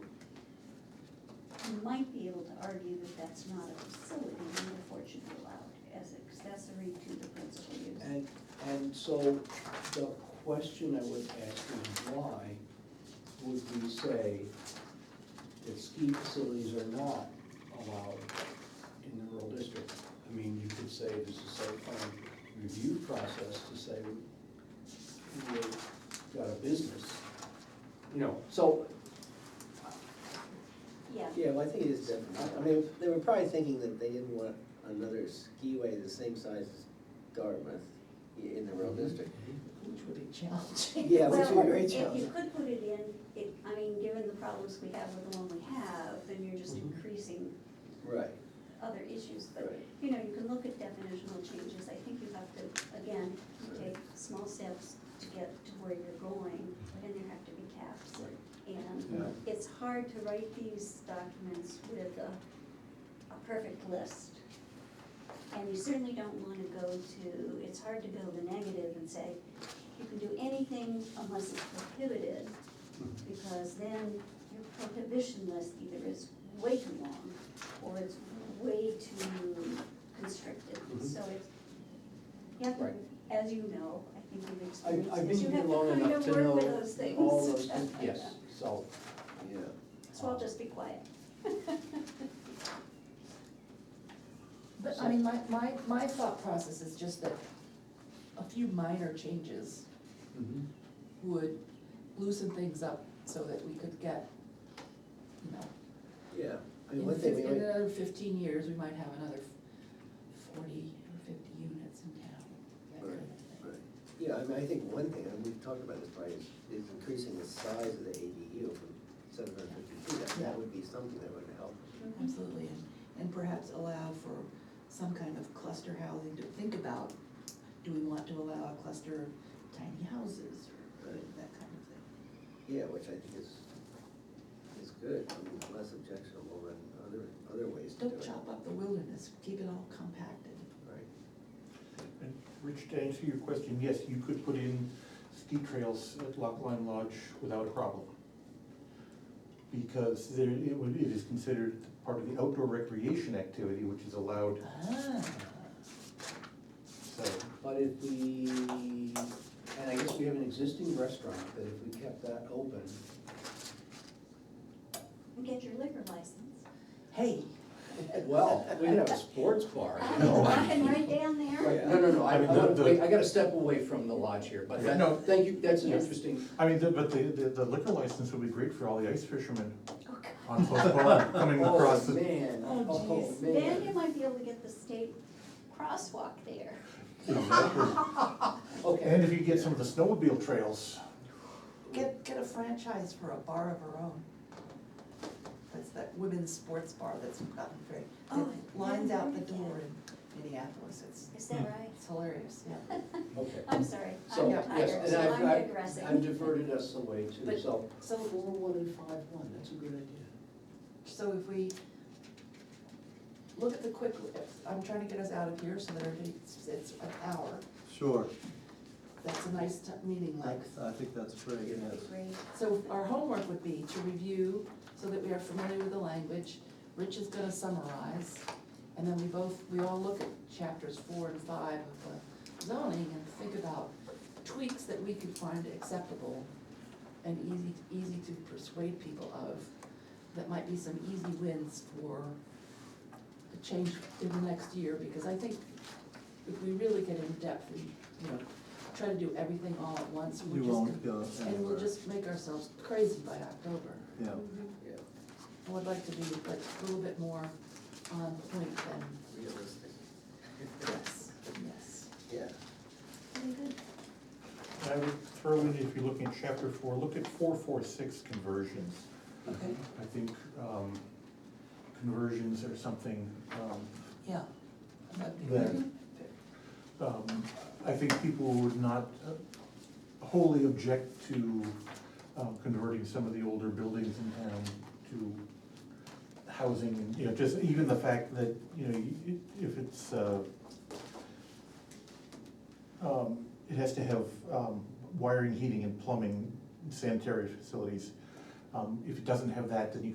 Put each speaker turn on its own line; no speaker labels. you might be able to argue that that's not a facility, and therefore it should be allowed as accessory to the principal use.
And, and so the question I would ask is why would we say that ski facilities are not allowed in the rural district? I mean, you could say there's a site plan review process to say we've got a business, you know, so,
Yeah,
Yeah, well, I think it is different. I- I mean, they were probably thinking that they didn't want another skiway the same size as Dartmouth i- in the rural district.
Which would be challenging.
Yeah, which would
well,
be very
if you
challenging.
could put it in, it, I mean, given the problems we have with the one we have, then you're just
Mhm.
increasing
Right,
other issues, but,
Mm-hmm. right.
you know, you can look at definitional changes, I think you have to, again, you take small steps to get to where you're going,
Mm-hmm.
and there have to be caps.
like,
And
Yeah.
it's hard to write these documents with a, a perfect list. And you certainly don't wanna go to, it's hard to build a negative and say, you can do anything unless it's prohibited, because then your prohibition list either is way too long, or it's way too constricted,
Mhm.
so it's, you have to,
Right.
as you know, I think you've experienced
I've, I've
this, you
been here
have to
long
kind
enough
of
to
work
know
with those things.
all those, things. yes, so,
Yeah.
So I'll just be quiet.
But I mean, my, my, my thought process is just that a few minor changes
Mm-hmm.
mhm,
would loosen things up so that we could get, you know,
Yeah, I mean,
in
one thing we
fif- in
might,
another fifteen years, we might have another f- forty or fifty units in town. that kind of thing.
right. yeah, I mean, I think one thing, and we've talked about this probably, is, is increasing the size of the ADU from seven hundred fifty feet. That- That would be something that would help.
Absolutely, and, and perhaps allow for some kind of cluster housing to think about, do we want to allow a cluster of tiny houses or
Right.
that kind of thing?
Yeah, which I think is, is good. I mean, it's less objectionable than other, other ways to do it.
Don't chop up the wilderness, keep it all compacted.
Right.
And Rich, to answer your question, yes, you could put in ski trails at Lock Line Lodge without a problem. Because there, it would, it is considered part of the outdoor recreation activity, which is allowed,
Ah,
so.
But if we, and I guess we have an existing restaurant, that if we kept that open,
And get your liquor license.
hey,
well, we have a sports bar, you know.
Walking right down
Oh,
there.
No, no, no, I,
I mean, the- the-
I, I gotta step away from the lodge here, but that,
No.
thank you, that's an
Yes.
interesting,
I mean, the- but the, the the liquor license would be great for all the ice fishermen
Oh, God.
on Post Pond coming across
Oh,
the.
man,
Oh,
oh,
jeez.
Then you
man.
might be able to get the state crosswalk there.
And
Okay,
if you get some of the snowmobile trails,
get, get a franchise for a bar of her own. That's that women's sports bar that's gotten very,
Oh,
it lines
yeah,
out the
yeah.
door in Minneapolis, it's,
Is that right?
it's hilarious, yeah.
okay.
I'm sorry,
So,
I'm
yes,
tired,
and
so
I've-
I'm
I've-
digressing.
I've diverted us away too,
But-
so.
So,
Four, one, and five, one, that's a good idea.
so if we look at the quick, I'm trying to get us out of here so that everybody, it's it's an hour.
Sure,
That's a nice t- meeting length.
I think that's great, yes.
Great.
So our homework would be to review so that we are familiar with the language. Rich is gonna summarize, and then we both, we all look at chapters four and five of the zoning and think about tweaks that we could find acceptable and easy, easy to persuade people of, that might be some easy wins for the change in the next year, because I think if we really get in depth and, you know, try to do everything all at once, we're
We
just gonna
won't go anywhere.
and we'll just make ourselves crazy by October.
Yeah,
Mhm.
Yeah,
I would like to be like a little bit more on point than,
realistic,
yes, yes.
yeah.
Very good.
I would throw in, if you're looking at chapter four, look at four, four, six conversions.
Okay.
I think um, conversions are something, um,
Yeah. That'd be
There.
good.
um, I think people would not uh, wholly object to um, converting some of the older buildings in town to housing, and, you know, just even the fact that, you know, you- if it's, uh, um, it has to have um, wiring, heating, and plumbing, sanitary facilities. Um, If it doesn't have that, then you